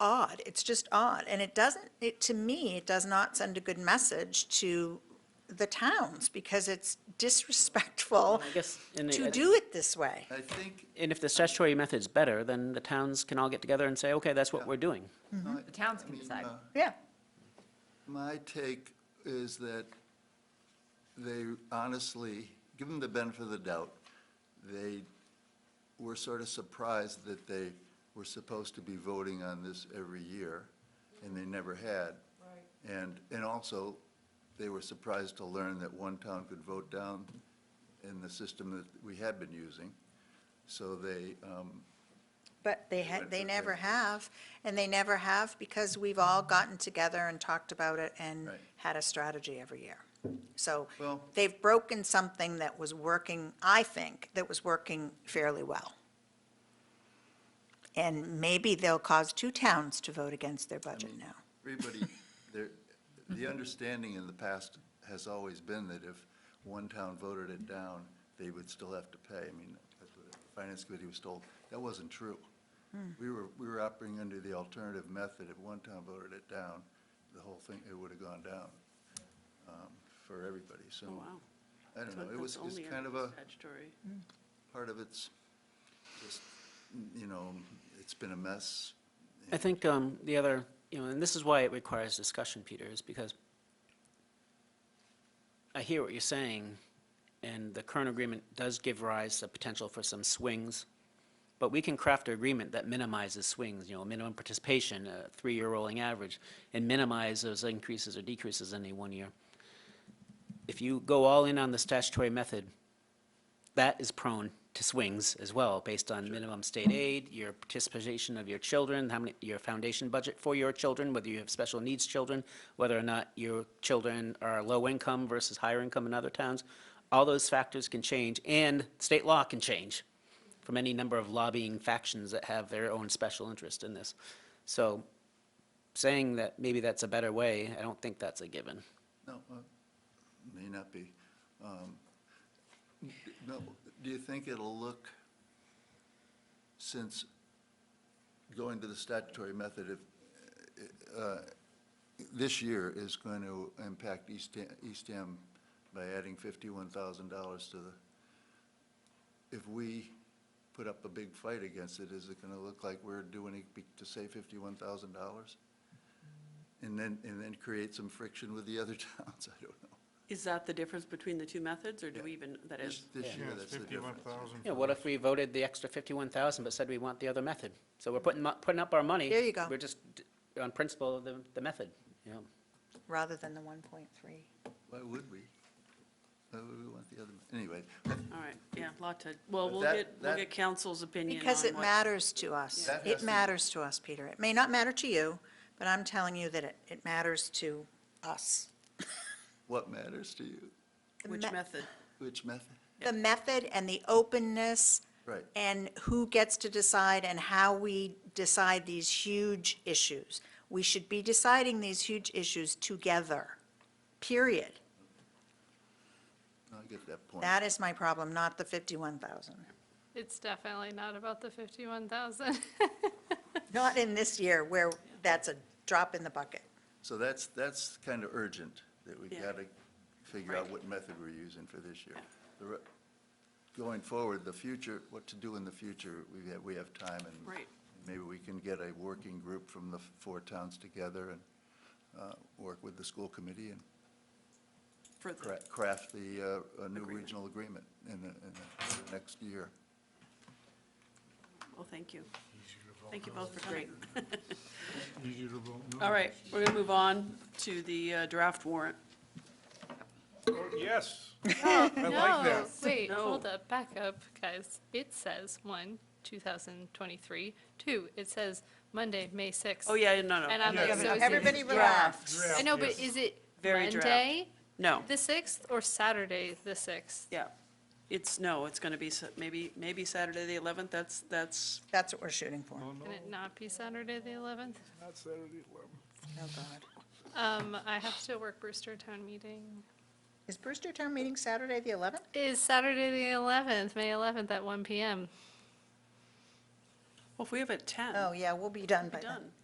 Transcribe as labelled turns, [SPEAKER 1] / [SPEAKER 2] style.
[SPEAKER 1] odd. It's just odd. And it doesn't, it, to me, it does not send a good message to the towns because it's disrespectful
[SPEAKER 2] I guess, and
[SPEAKER 1] to
[SPEAKER 2] I-
[SPEAKER 1] do it this way.
[SPEAKER 3] I think,
[SPEAKER 2] and if the statutory method's better, then the towns can all get together and say, okay, that's what we're doing.
[SPEAKER 3] my-
[SPEAKER 4] The towns
[SPEAKER 3] I
[SPEAKER 4] can
[SPEAKER 3] mean,
[SPEAKER 4] decide.
[SPEAKER 3] uh,
[SPEAKER 1] Yeah.
[SPEAKER 3] My take is that they honestly, give them the benefit of the doubt, they were sort of surprised that they were supposed to be voting on this every year, and they never had. Right. And, and also, they were surprised to learn that one town could vote down in the system that we had been using. So they, um,
[SPEAKER 1] But they had, they never have, and they never have because we've all gotten together and talked about it and
[SPEAKER 3] Right.
[SPEAKER 1] had a strategy every year. So
[SPEAKER 3] Well-
[SPEAKER 1] they've broken something that was working, I think, that was working fairly well. And maybe they'll cause two towns to vote against their budget
[SPEAKER 3] Mm.
[SPEAKER 1] now.
[SPEAKER 3] Everybody, there, the understanding in the past has always been that if one town voted it down, they would still have to pay. I mean, that's what the finance committee was told. That wasn't true. We were, we were operating under the alternative method. If one town voted it down, the whole thing, it would have gone down um, for everybody, so. I don't know, it was, it's kind of a, part of it's, just, you know, it's been a mess.
[SPEAKER 2] I think um, the other, you know, and this is why it requires discussion, Peter, is because I hear what you're saying, and the current agreement does give rise to potential for some swings, but we can craft an agreement that minimizes swings, you know, minimum participation, a three-year rolling average, and minimize those increases or decreases in any one year. If you go all in on the statutory method, that is prone to swings as well, based on minimum state aid, your participation of your children, how many, your foundation budget for your children, whether you have special needs children, whether or not your children are low income versus higher income in other towns. All those factors can change, and state law can change from any number of lobbying factions that have their own special interest in this. So saying that maybe that's a better way, I don't think that's a given.
[SPEAKER 3] No, uh, may not be. Um, n- No, do you think it'll look, since going to the statutory method, if, uh, this year is going to impact East Ham- East Ham by adding $51,000 to the, if we put up a big fight against it, is it going to look like we're doing it be- to save $51,000? And then, and then create some friction with the other towns, I don't know.
[SPEAKER 5] Is that the difference between the two methods, or do we even, that
[SPEAKER 3] This,
[SPEAKER 5] is,
[SPEAKER 3] this year,
[SPEAKER 6] Yeah, it's
[SPEAKER 3] that's the
[SPEAKER 6] fifty-one
[SPEAKER 3] difference.
[SPEAKER 6] thousand.
[SPEAKER 2] Yeah, what if we voted the extra fifty-one thousand but said we want the other method? So we're putting, mo- putting up our money.
[SPEAKER 1] There you go.
[SPEAKER 2] We're just, d- on principle, of the, the method, you know.
[SPEAKER 1] rather than the 1.3.
[SPEAKER 3] Why would we? Why would we want the other, anyway,
[SPEAKER 5] all right, yeah, lot to, well,
[SPEAKER 3] But
[SPEAKER 5] we'll
[SPEAKER 3] that-
[SPEAKER 5] get, we'll
[SPEAKER 3] that-
[SPEAKER 5] get council's opinion
[SPEAKER 1] Because
[SPEAKER 5] on
[SPEAKER 1] it
[SPEAKER 5] what-
[SPEAKER 1] matters to us.
[SPEAKER 3] That has
[SPEAKER 1] It
[SPEAKER 3] to-
[SPEAKER 1] matters to us, Peter. It may not matter to you, but I'm telling you that it, it matters to us.
[SPEAKER 3] what matters to you?
[SPEAKER 1] The
[SPEAKER 5] Which
[SPEAKER 1] me-
[SPEAKER 5] method?
[SPEAKER 3] Which method?
[SPEAKER 1] the method and the openness.
[SPEAKER 3] Right.
[SPEAKER 1] And who gets to decide and how we decide these huge issues. We should be deciding these huge issues together, period.
[SPEAKER 3] I get that point.
[SPEAKER 1] That is my problem, not the 51,000.
[SPEAKER 7] It's definitely not about the fifty-one thousand.
[SPEAKER 1] Not in this year where that's a drop in the bucket.
[SPEAKER 3] So that's, that's kind of urgent, that we
[SPEAKER 5] Yeah.
[SPEAKER 3] got to figure out
[SPEAKER 5] Right.
[SPEAKER 3] what method we're using for this year. The re- Going forward, the future, what to do in the future, we have, we have time and.
[SPEAKER 5] Right.
[SPEAKER 3] Maybe we can get a working group from the four towns together and uh, work with the school committee and
[SPEAKER 5] For the-
[SPEAKER 3] cra- craft the, uh, a new
[SPEAKER 5] Agreement.
[SPEAKER 3] regional agreement in the, in the next year.
[SPEAKER 5] Well, thank you. Thank you both for coming.
[SPEAKER 6] Easy to vote no.
[SPEAKER 5] All right, we're going to move on to the uh, draft warrant.
[SPEAKER 6] Oh, Yes.
[SPEAKER 7] No,
[SPEAKER 6] that.
[SPEAKER 7] Wait,
[SPEAKER 5] No.
[SPEAKER 7] hold up, back up, guys. It says one, two thousand twenty-three, two, it says Monday, May sixth.
[SPEAKER 5] Oh, yeah, no, no.
[SPEAKER 7] And um, I'm like,
[SPEAKER 6] Yeah,
[SPEAKER 7] so is
[SPEAKER 1] Everybody
[SPEAKER 7] it,
[SPEAKER 1] relax.
[SPEAKER 6] Draft,
[SPEAKER 7] I know, but
[SPEAKER 6] yes.
[SPEAKER 7] is it
[SPEAKER 5] Very draft.
[SPEAKER 7] Monday,
[SPEAKER 5] No,
[SPEAKER 7] the sixth, or Saturday, the sixth?
[SPEAKER 5] yeah. It's, no, it's going to be, sa- maybe, maybe Saturday the 11th, that's, that's,
[SPEAKER 1] That's what we're shooting for.
[SPEAKER 6] No,
[SPEAKER 1] Oh,
[SPEAKER 6] no,
[SPEAKER 7] Can it not be Saturday, the eleventh?
[SPEAKER 6] not Saturday, eleven.
[SPEAKER 1] God.
[SPEAKER 7] Um, I have to work Brewster Town meeting.
[SPEAKER 1] Is Brewster Town meeting Saturday, the 11th?
[SPEAKER 7] Is Saturday, the eleventh, May eleventh at one PM.
[SPEAKER 5] well, if we have a 10,
[SPEAKER 1] Oh, yeah, we'll be done by
[SPEAKER 5] we're
[SPEAKER 1] then.
[SPEAKER 5] done.